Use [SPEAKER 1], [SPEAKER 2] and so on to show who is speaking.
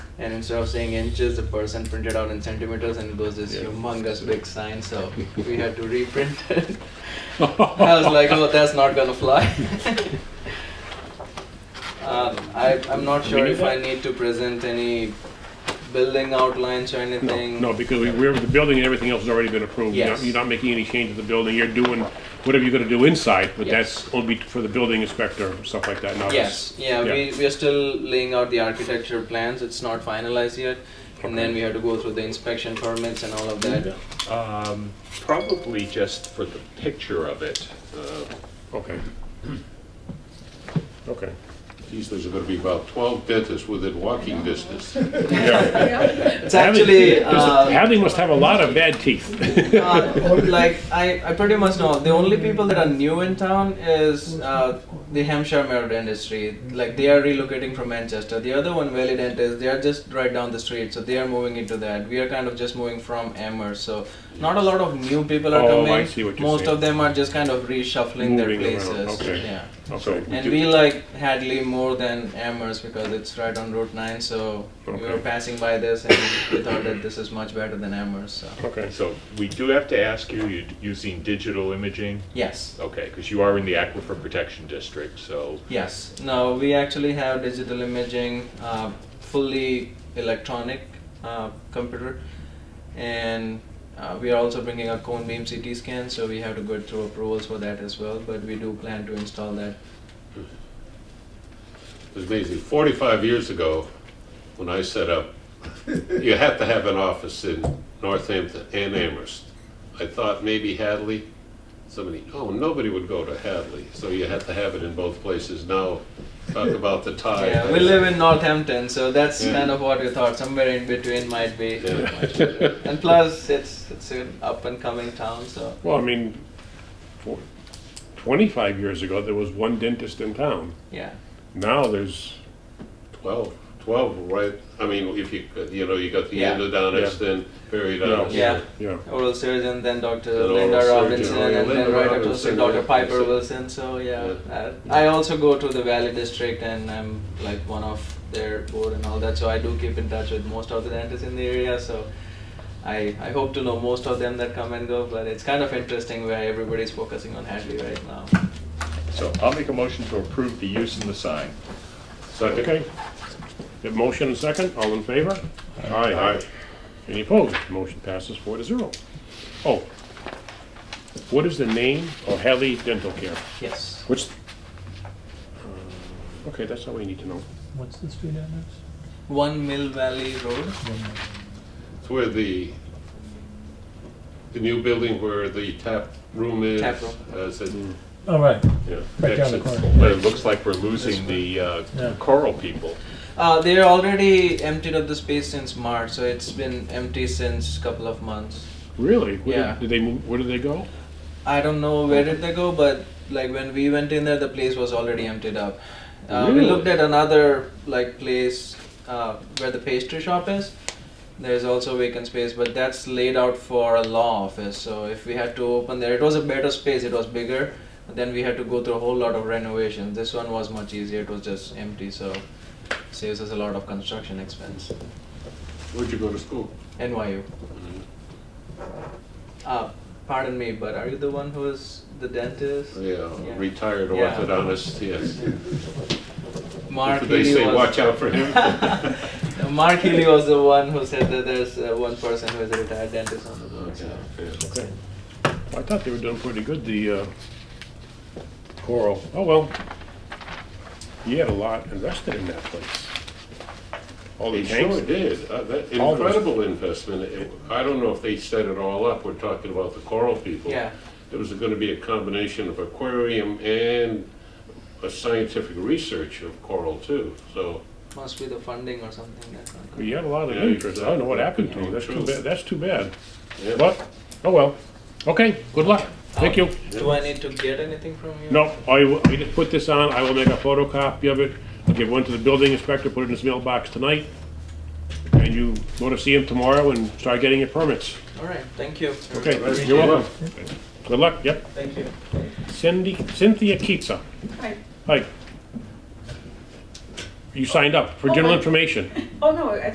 [SPEAKER 1] And instead of saying inches, the person printed out in centimeters and it was this
[SPEAKER 2] Yeah.
[SPEAKER 1] humongous big sign. So we had to reprint it. I was like, oh, that's not gonna fly. um, I, I'm not sure if I need to present any building outlines or
[SPEAKER 2] No,
[SPEAKER 1] anything.
[SPEAKER 2] no, because we- we're, the building and everything else has already been approved. You're not-
[SPEAKER 1] Yes.
[SPEAKER 2] You're not making any change to the building, you're doing whatever you're gonna do inside, but
[SPEAKER 1] Yes.
[SPEAKER 2] that's only for the building inspector, and stuff like that, not us.
[SPEAKER 1] Yes, yeah,
[SPEAKER 2] Yeah.
[SPEAKER 1] We, we are still laying out the architecture plans. It's not finalized yet. And then
[SPEAKER 2] Okay.
[SPEAKER 1] we have to go through the inspection permits and all of that.
[SPEAKER 3] Um, Probably just for the picture of it. uh,
[SPEAKER 2] Okay. Okay.
[SPEAKER 4] Geez, there's gonna be about twelve dentists within walking distance.
[SPEAKER 2] Yeah.
[SPEAKER 1] It's actually.
[SPEAKER 2] Hadley-
[SPEAKER 1] uh,
[SPEAKER 2] Hadley must have a lot of bad teeth.
[SPEAKER 1] uh, like I, I pretty much know the only people that are new in town is uh, the Hampshire Merritt industry. Like they are relocating from Manchester. The other one, Valley Dentist, they are just right down the street, so they are moving into that. We are kind of just moving from Amherst, so not a lot of new people are
[SPEAKER 2] Oh, I
[SPEAKER 1] coming.
[SPEAKER 2] see what you're
[SPEAKER 1] Most
[SPEAKER 2] saying.
[SPEAKER 1] of them are just kind of reshuffling their
[SPEAKER 2] Moving around,
[SPEAKER 1] places.
[SPEAKER 2] okay.
[SPEAKER 1] Yeah.
[SPEAKER 2] Okay.
[SPEAKER 1] And we like Hadley more than Amherst because it's right on Route 9, so we were
[SPEAKER 2] Okay.
[SPEAKER 1] passing by this and we thought that this is much better than Amherst. So.
[SPEAKER 2] Okay.
[SPEAKER 3] So we do have to ask you, you using digital imaging?
[SPEAKER 1] Yes.
[SPEAKER 3] Okay, because you are in the Aquifer Protection District, so
[SPEAKER 1] Yes. No, we actually have digital imaging, uh, fully electronic uh, computer, and uh, we are also bringing a cone beam CT scan, so we have to go through approvals for that as well. But we do plan to install that.
[SPEAKER 4] It's amazing. Forty-five years ago, when I set up, you have to have an office in Northampton and Amherst. I thought maybe Hadley, somebody, oh, nobody would go to Hadley, so you had to have it in both places. Now, talk about the tie.
[SPEAKER 1] Yeah, we live in Northampton, so that's
[SPEAKER 4] Yeah.
[SPEAKER 1] kind of what we thought. Somewhere in between might be.
[SPEAKER 4] Yeah.
[SPEAKER 1] And plus, it's it's an up and coming town, so
[SPEAKER 2] Well, I mean, for 25 years ago, there was one dentist in town.
[SPEAKER 1] yeah.
[SPEAKER 2] Now there's,
[SPEAKER 4] 12, 12, right, I mean, if you, could, you know, you got the
[SPEAKER 1] Yeah.
[SPEAKER 4] endodontist and periodontist.
[SPEAKER 1] Yeah.
[SPEAKER 2] yeah.
[SPEAKER 1] Oral surgeon, then Dr.
[SPEAKER 4] Then oral
[SPEAKER 1] Linda
[SPEAKER 4] surgeon, Oh,
[SPEAKER 1] Robinson,
[SPEAKER 4] yeah,
[SPEAKER 1] and then
[SPEAKER 4] Linda
[SPEAKER 1] right after
[SPEAKER 4] Robinson,
[SPEAKER 1] Dr.
[SPEAKER 4] yeah,
[SPEAKER 1] Piper
[SPEAKER 4] that's it.
[SPEAKER 1] Wilson. So yeah,
[SPEAKER 4] Yeah.
[SPEAKER 1] uh, I also go to the Valley District, and I'm like one of their board and all that. So I do keep in touch with most of the dentists in the area. So I I hope to know most of them that come and go. But it's kind of interesting where everybody's focusing on Hadley right now.
[SPEAKER 3] So I'll make a motion to approve the use and the sign.
[SPEAKER 4] Second,
[SPEAKER 2] Okay. The motion and second, all in favor? Aye.
[SPEAKER 4] Aye.
[SPEAKER 2] Any opposed? Motion passes four to zero. Oh, what is the name of Hadley Dental Care?
[SPEAKER 1] Yes.
[SPEAKER 2] What's, Uh, okay, that's all we need to know.
[SPEAKER 5] What's the street address?
[SPEAKER 1] One Mill Valley Road.
[SPEAKER 4] it's where the, the new building where the tap room is. uh,
[SPEAKER 1] Tap room.
[SPEAKER 4] As it,
[SPEAKER 5] All Oh, right,
[SPEAKER 4] yeah.
[SPEAKER 5] right down the
[SPEAKER 4] exits.
[SPEAKER 5] corner.
[SPEAKER 3] But it looks like we're losing the
[SPEAKER 5] Yeah.
[SPEAKER 3] uh, coral people.
[SPEAKER 1] Uh, they're already emptied of the space since March, so it's been empty since couple of months.
[SPEAKER 2] Really? Where did-
[SPEAKER 1] Yeah.
[SPEAKER 2] Did they, move- where did they go?
[SPEAKER 1] I don't know where did they go, but like when we went in there, the place was already emptied up. Uh, We
[SPEAKER 2] Really?
[SPEAKER 1] looked at another like place uh, where the pastry shop is. There's also vacant space, but that's laid out for a law office. So if we had to open there, it was a better space. It was bigger. Then we had to go through a whole lot of renovation. This one was much easier. It was just empty, so saves us a lot of construction expense.
[SPEAKER 4] Where'd you go to school?
[SPEAKER 1] NYU. Mm-hmm. Uh, pardon me, but are you the one who is the dentist?
[SPEAKER 4] Yeah,
[SPEAKER 1] Yeah.
[SPEAKER 4] retired
[SPEAKER 1] Yeah.
[SPEAKER 4] orthodontist, yes.
[SPEAKER 1] Mark
[SPEAKER 4] Did they
[SPEAKER 1] Healy
[SPEAKER 4] say,
[SPEAKER 1] was,
[SPEAKER 4] watch out for him?
[SPEAKER 1] Mark Healy was the one who said that there's uh, one person who is a retired dentist on the board.
[SPEAKER 4] Okay,
[SPEAKER 1] So.
[SPEAKER 4] yeah.
[SPEAKER 2] Okay. Well, I thought they were doing pretty good, the uh, Coral. Oh, well. You had a lot invested in that place. All
[SPEAKER 4] They
[SPEAKER 2] the
[SPEAKER 4] sure
[SPEAKER 2] tanks.
[SPEAKER 4] did. Uh, that-
[SPEAKER 2] All those-
[SPEAKER 4] Incredible investment. It- I don't know if they set it all up. We're talking about the coral people.
[SPEAKER 1] Yeah.
[SPEAKER 4] It was gonna be a combination of aquarium and a scientific research of coral too, so.
[SPEAKER 1] Must be the funding or something. That's not good.
[SPEAKER 2] You had a lot of
[SPEAKER 4] Yeah,
[SPEAKER 2] interest. I don't know what happened to them. That's too
[SPEAKER 4] True.
[SPEAKER 2] bad, that's too bad.
[SPEAKER 4] yeah.
[SPEAKER 2] But, oh, well. Okay, good luck. Thank you.
[SPEAKER 1] Do I need to get anything from you?
[SPEAKER 2] No, I, will- I just put this on, I will make a photocopy of it, I'll give one to the building inspector, put it in his mailbox tonight, and you go to see him tomorrow and start getting your permits.
[SPEAKER 1] All right. Thank you.
[SPEAKER 2] Okay, you're welcome. Good luck, yep.
[SPEAKER 1] Thank you.
[SPEAKER 2] Cindy, Cynthia Keatsa.
[SPEAKER 6] Hi.
[SPEAKER 2] Hi. You signed up for
[SPEAKER 6] Oh,
[SPEAKER 2] general
[SPEAKER 6] hi.
[SPEAKER 2] information.
[SPEAKER 6] Oh, no, I